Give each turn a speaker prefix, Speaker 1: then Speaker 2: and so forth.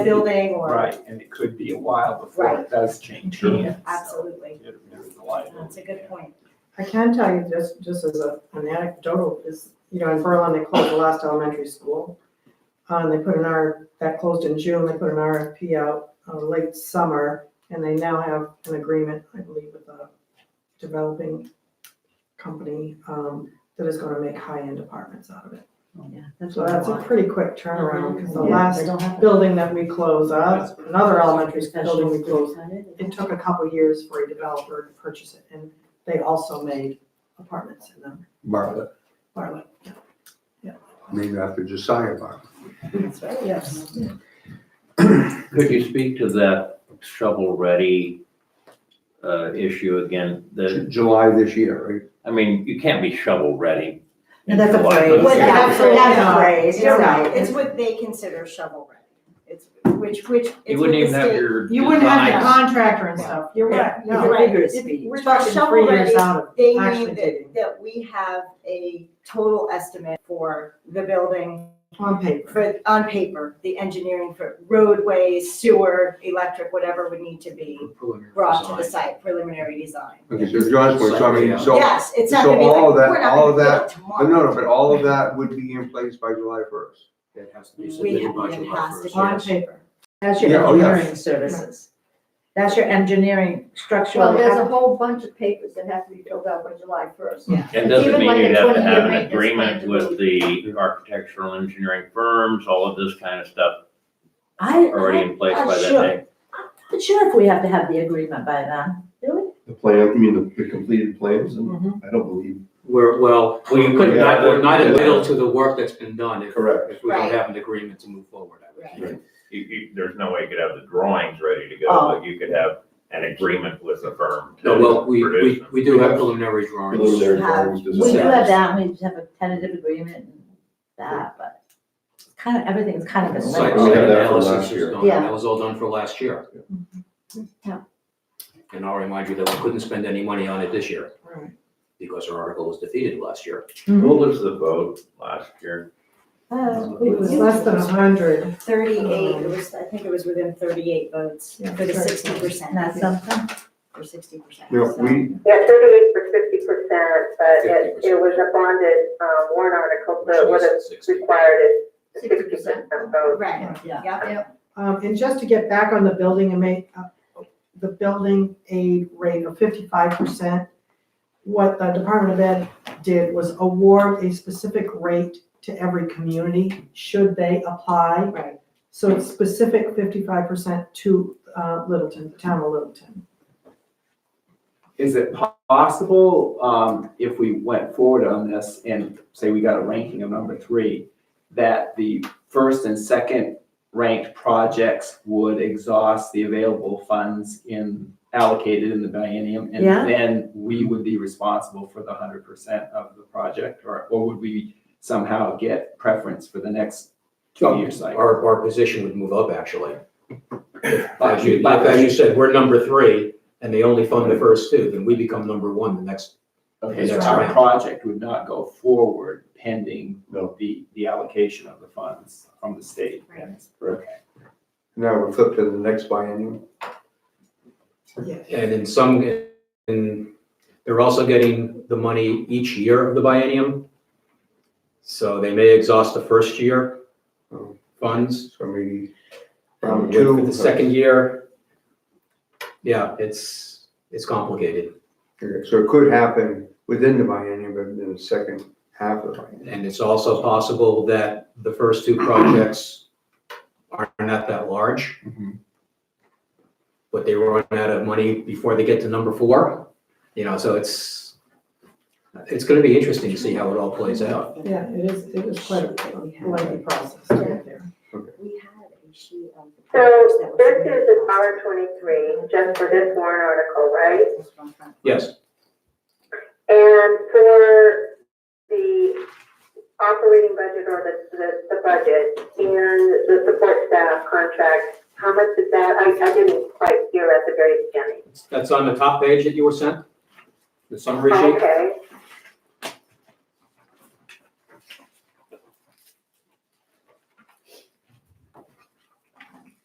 Speaker 1: building or,
Speaker 2: Right, and it could be a while before it does change hands. so
Speaker 1: absolutely.
Speaker 2: it- There's the
Speaker 1: That's a
Speaker 2: liability.
Speaker 1: good point.
Speaker 3: I can tell you just, just as a, an anecdotal, is, you know, in Berlin, they closed the last elementary school. Uh, And they put an R, that closed in June, they put an RFP out, uh, late summer, and they now have an agreement, I believe, with a developing company, um, that is gonna make high-end apartments out of it.
Speaker 4: Yeah, that's
Speaker 3: So
Speaker 4: what I
Speaker 3: that's a
Speaker 4: want.
Speaker 3: pretty quick turnaround, because the
Speaker 4: Yeah,
Speaker 3: last
Speaker 4: they don't have
Speaker 3: building that we closed, uh, another elementary school
Speaker 4: special
Speaker 3: building we closed,
Speaker 4: superintendent.
Speaker 3: it took a couple years for a developer to purchase it, and they also made apartments in them,
Speaker 5: Bartlett,
Speaker 3: Bartlett.
Speaker 5: named after Josiah Bartlett.
Speaker 3: That's right, yes.
Speaker 6: Could you speak to that shovel-ready uh, issue again?
Speaker 5: Ju-
Speaker 6: The,
Speaker 5: July this year,
Speaker 6: I mean, you can't be shovel-ready.
Speaker 4: And that's a
Speaker 6: Why?
Speaker 4: phrase.
Speaker 1: Well, that's,
Speaker 3: Absolutely
Speaker 1: that's
Speaker 3: not.
Speaker 1: a phrase, you're
Speaker 3: It's-
Speaker 1: right, it's what they consider shovel ready. It's, which, which. it's
Speaker 6: You wouldn't
Speaker 1: what
Speaker 6: even
Speaker 1: the
Speaker 6: have
Speaker 1: state-
Speaker 6: your.
Speaker 3: You wouldn't have your
Speaker 6: designs.
Speaker 3: contractor and stuff, you're right,
Speaker 1: You're
Speaker 3: no.
Speaker 1: right.
Speaker 4: vigorous
Speaker 1: If
Speaker 4: speed.
Speaker 1: We're
Speaker 3: Talking
Speaker 1: shovel
Speaker 3: three years
Speaker 1: ready,
Speaker 3: out of,
Speaker 1: they
Speaker 3: actually
Speaker 1: mean
Speaker 3: digging.
Speaker 1: that, that we have a total estimate for the building,
Speaker 3: on paper.
Speaker 1: for, on paper, the engineering for roadways, sewer, electric, whatever would need to be brought to the site, preliminary design.
Speaker 5: right? Okay, so John's point, so I mean, so,
Speaker 1: Yes, it's not
Speaker 5: so
Speaker 1: gonna be like,
Speaker 5: all of that-
Speaker 1: we're not
Speaker 5: all of
Speaker 1: gonna do
Speaker 5: that-
Speaker 1: it
Speaker 5: but no, no,
Speaker 1: tomorrow.
Speaker 5: but all of that would be in place by July first.
Speaker 7: That has to be
Speaker 1: We
Speaker 7: submitted
Speaker 1: have,
Speaker 7: by
Speaker 1: it
Speaker 7: July
Speaker 1: has to
Speaker 7: first.
Speaker 1: be.
Speaker 3: On paper.
Speaker 4: That's your
Speaker 5: Yeah, oh, yeah.
Speaker 4: engineering services. That's your engineering structural.
Speaker 8: Well, there's a whole bunch of papers that have to be filled out by July first.
Speaker 6: It
Speaker 8: Even
Speaker 6: doesn't mean
Speaker 8: like
Speaker 6: you'd
Speaker 8: a
Speaker 6: have to
Speaker 8: 20-year
Speaker 6: have an
Speaker 8: maintenance
Speaker 6: agreement
Speaker 8: plan.
Speaker 6: with the architectural engineering firms, all of this kind of stuff
Speaker 4: I,
Speaker 6: already
Speaker 4: I,
Speaker 6: in place
Speaker 4: I'm
Speaker 6: by that
Speaker 4: sure.
Speaker 6: day.
Speaker 4: I'm sure if we have to have the agreement by then, really?
Speaker 9: The plan, you mean the, the completed plans, and
Speaker 3: Mhm.
Speaker 4: Mm-hmm.
Speaker 9: I don't believe.
Speaker 7: We're, well, we could
Speaker 9: Yeah,
Speaker 7: not, we're not
Speaker 9: yeah.
Speaker 7: entitled to the work that's been done if,
Speaker 9: Correct.
Speaker 7: if we don't
Speaker 1: Right.
Speaker 7: have an agreement to move forward. I would
Speaker 1: Right.
Speaker 7: think.
Speaker 10: you, you, there's no way you could have the drawings ready to
Speaker 4: Oh.
Speaker 10: go, but you could have an agreement with the firm
Speaker 7: No, well,
Speaker 10: to
Speaker 7: we,
Speaker 10: produce
Speaker 7: we,
Speaker 10: them.
Speaker 7: we do have preliminary drawings.
Speaker 9: Preliminary
Speaker 1: have-
Speaker 9: drawings,
Speaker 4: We do
Speaker 9: design.
Speaker 4: have that, we just have a tentative agreement and that, but it's kind of, everything's kind of been
Speaker 7: Site
Speaker 9: We
Speaker 4: linked.
Speaker 9: have that from
Speaker 7: analysis
Speaker 9: last
Speaker 7: is
Speaker 9: year.
Speaker 7: done, and
Speaker 4: Yeah.
Speaker 7: that was all done for last year.
Speaker 4: Yeah.
Speaker 7: And I'll remind you that we couldn't spend any money on it this year
Speaker 3: Right.
Speaker 7: because our article was defeated last year.
Speaker 10: What was the vote last year?
Speaker 4: Oh,
Speaker 3: It was less than a hundred,
Speaker 1: Thirty-eight, it was, I think it was within thirty-eight votes
Speaker 3: Yeah,
Speaker 1: for the
Speaker 3: sure.
Speaker 1: sixty percent.
Speaker 4: That's something.
Speaker 1: For sixty percent.
Speaker 5: No, we,
Speaker 11: Yeah, thirty-eight for fifty percent, but it,
Speaker 7: 50%.
Speaker 11: it was a bonded, um, warrant article,
Speaker 7: which
Speaker 11: so what
Speaker 7: was
Speaker 11: is
Speaker 7: 60.
Speaker 11: required is sixty
Speaker 8: 60%.
Speaker 11: percent vote.
Speaker 1: Right,
Speaker 4: Yeah.
Speaker 1: yeah.
Speaker 3: um, and just to get back on the building and make, uh, the building aid rate of fifty-five percent. What the Department of Ed did was award a specific rate to every community, should they apply.
Speaker 1: Right.
Speaker 3: So it's specific fifty-five percent to uh, Littleton, the town of Littleton.
Speaker 2: Is it po- possible, um, if we went forward on this and say we got a ranking of number three, that the first and second ranked projects would exhaust the available funds in, allocated in the biennium? And
Speaker 4: Yeah.
Speaker 2: then we would be responsible for the hundred percent of the project, or, or would we somehow get preference for the next two-year cycle?
Speaker 7: Our, our position would move up, actually. As
Speaker 2: But
Speaker 7: you, but as you said, we're number three, and they only fund the first two, then we become number one the next.
Speaker 2: Okay, so
Speaker 7: That's
Speaker 2: our
Speaker 7: right.
Speaker 2: project would not go forward pending
Speaker 9: No.
Speaker 2: the, the allocation of the funds from the state.
Speaker 1: Right.
Speaker 2: Okay.
Speaker 5: now we flip to the next biennium.
Speaker 7: And in some, and they're also getting the money each year of the biennium. So they may exhaust the first year um, funds.
Speaker 5: So maybe
Speaker 7: Um,
Speaker 5: round
Speaker 7: with-
Speaker 5: two.
Speaker 7: with the second year. Yeah, it's, it's complicated,
Speaker 5: Okay, So it could happen within the biennium, but in the second half of the biennium.
Speaker 7: and it's also possible that the first two projects are not that large, but they run out of money before they get to number four. You know, so it's, it's gonna be interesting to see how it all plays out.
Speaker 3: Yeah, it is, it is quite a lengthy process to get there.
Speaker 1: We had a sheet of. the
Speaker 11: So
Speaker 1: papers that was
Speaker 11: this
Speaker 1: submitted
Speaker 11: is a dollar twenty-three, just for this warrant article, right?
Speaker 1: from front.
Speaker 7: Yes,
Speaker 11: And for the operating budget or the, the, the budget and the support staff contract, how much is that? I, I didn't quite hear at the very beginning.
Speaker 7: that's on the top page that you were sent, the summary sheet.
Speaker 11: Okay,